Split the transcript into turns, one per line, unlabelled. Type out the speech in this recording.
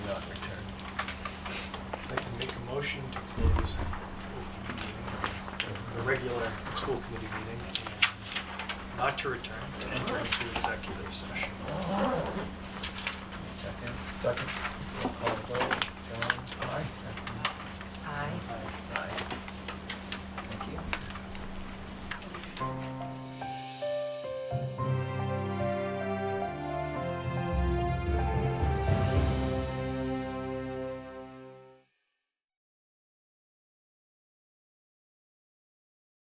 regular school committee meeting and not to return, to enter into executive session.
Second.
Second.
Roll call vote.